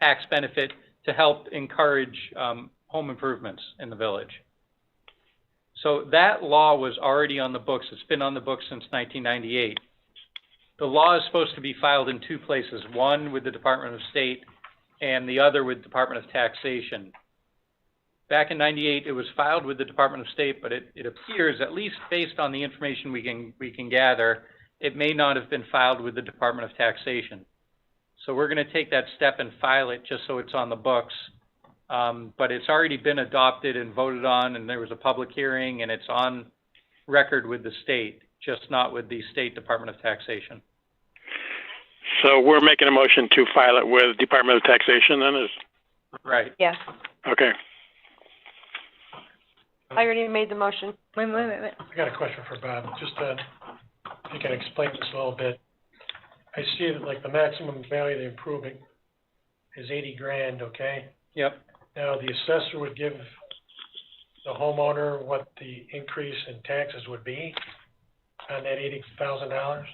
tax benefit to help encourage, um, home improvements in the village. So that law was already on the books, it's been on the books since nineteen ninety-eight. The law is supposed to be filed in two places, one with the Department of State and the other with Department of Taxation. Back in ninety-eight, it was filed with the Department of State, but it, it appears, at least based on the information we can, we can gather, it may not have been filed with the Department of Taxation. So we're gonna take that step and file it just so it's on the books. Um, but it's already been adopted and voted on, and there was a public hearing, and it's on record with the state, just not with the State Department of Taxation. So we're making a motion to file it with Department of Taxation then is, Right. Yes, okay. I already made the motion. Wait, wait, wait, wait. I got a question for Bob, just, uh, if you can explain this a little bit. I see that like the maximum value of the improvement is eighty grand, okay? Yep, Now, the assessor would give the homeowner what the increase in taxes would be on that eighty thousand dollars,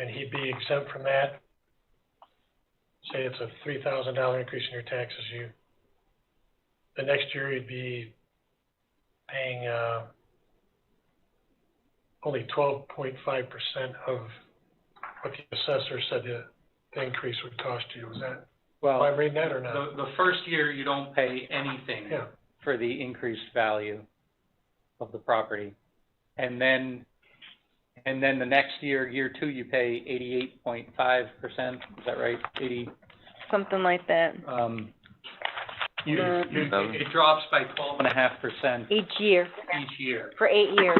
and he'd be exempt from that. Say it's a three thousand dollar increase in your taxes, you, the next year you'd be paying, uh, only twelve point five percent of what the assessor said the, the increase would cost you. Is that, am I well, reading that the, or not? the first year, you don't pay anything Yeah. for the increased value of the property. And then, and then the next year, year two, you pay eighty-eight point five percent, is that right? Eighty, Something like that. um, you, Uh, you, Um, it drops by twelve and a half percent Each year, each year. for eight years.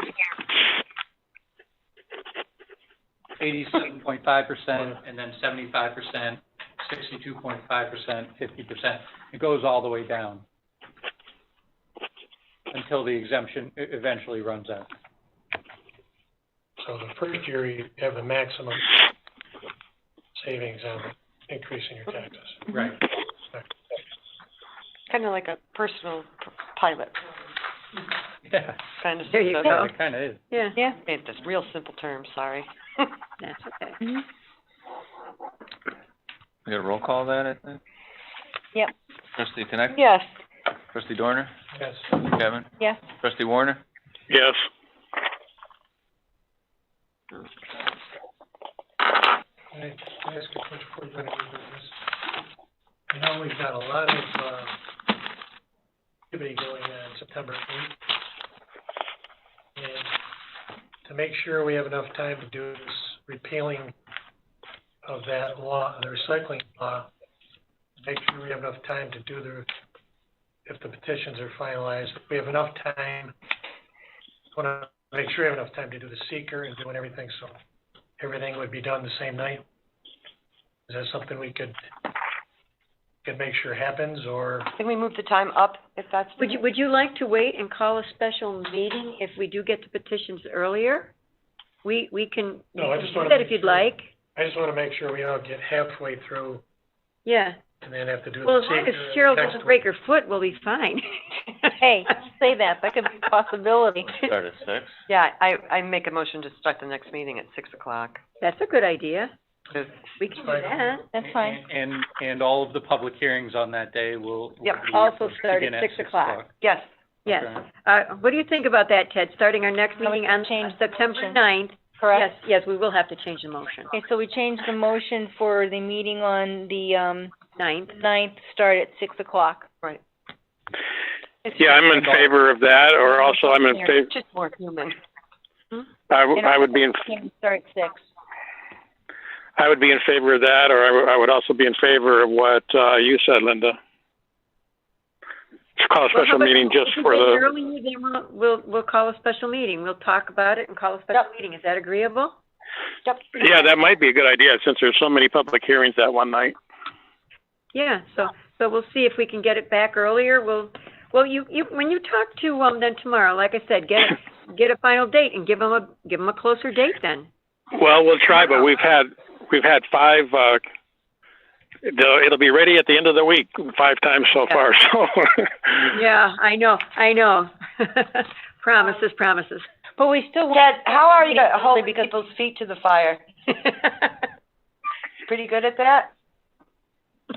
eighty-seven point five percent, and then seventy-five percent, sixty-two point five percent, fifty percent. It goes all the way down until the exemption e- eventually runs out. So the first year, you have the maximum savings on increasing your taxes. Right. Mm-hmm. Kind of like a personal p- pilot, Yeah, kind of. There you stuff. go. it kinda is. Yeah. Yeah, Made this real simple term, sorry. that's okay. We got a roll call then, I think? Yep. Trustee Connect, Yes. trustee Dorner, Yes. Kevin, Yes. trustee Warner, Yes, Can I can I ask a question before you go into new business? I know we've got a lot of, uh, activity going on September eighth. And to make sure we have enough time to do this repealing of that law, the recycling law, make sure we have enough time to do the, if the petitions are finalized, we have enough time. Wanna make sure we have enough time to do the seeker and doing everything, so everything would be done the same night? Is that something we could, could make sure happens, or, Can we move the time up if that's? Would you, would you like to wait and call a special meeting if we do get the petitions earlier? We, we can, we No, I can just do wanna that make if you'd sure. like. I just wanna make sure we don't get halfway through Yeah, and then have to do the well, as seeker long as next Cheryl doesn't break week. her foot, we'll be fine. Hey, say that, that could be a possibility. start at six. Yeah, I, I make a motion to start the next meeting at six o'clock. That's a good idea. Good. We can do Fine. that. That's fine. And, and all of the public hearings on that day will. will Yep. be- Also start at begin six o'clock. Yes, Yes. Okay. Uh, what do you think about that, Ted? Starting our next Now we meeting can on change the September motion. ninth? Correct? Yes, yes, we will have to change the motion. Okay, so we changed the motion for the meeting on the, um, Ninth. ninth, start at six o'clock. right. yeah, I'm in favor of that, or also I'm in favor, Just more human. I, w- I would be in, Can start at six. I would be in favor of that, or I, w- I would also be in favor of what, uh, you said, Linda. To Call a Well, how special about- meeting just if we for get the. earlier, then we'll, we'll, we'll call a special meeting. We'll talk about it and call a special Yep. meeting. Is that agreeable? Yeah, that might be a good idea, since there's so many public hearings that one night. Yeah, so, so we'll see if we can get it back earlier, we'll, well, you, you, when you talk to, um, them tomorrow, like I said, get, a- get a final date and give them a, give them a closer date then. Well, we'll try, but we've had, we've had five, uh, it'll, it'll be ready at the end of the week, five times so Yeah. far, so. Yeah, I know, I know. Promises, promises. But we still want. Ted, how are you Hold holding people's feet to the fire? Pretty good at that?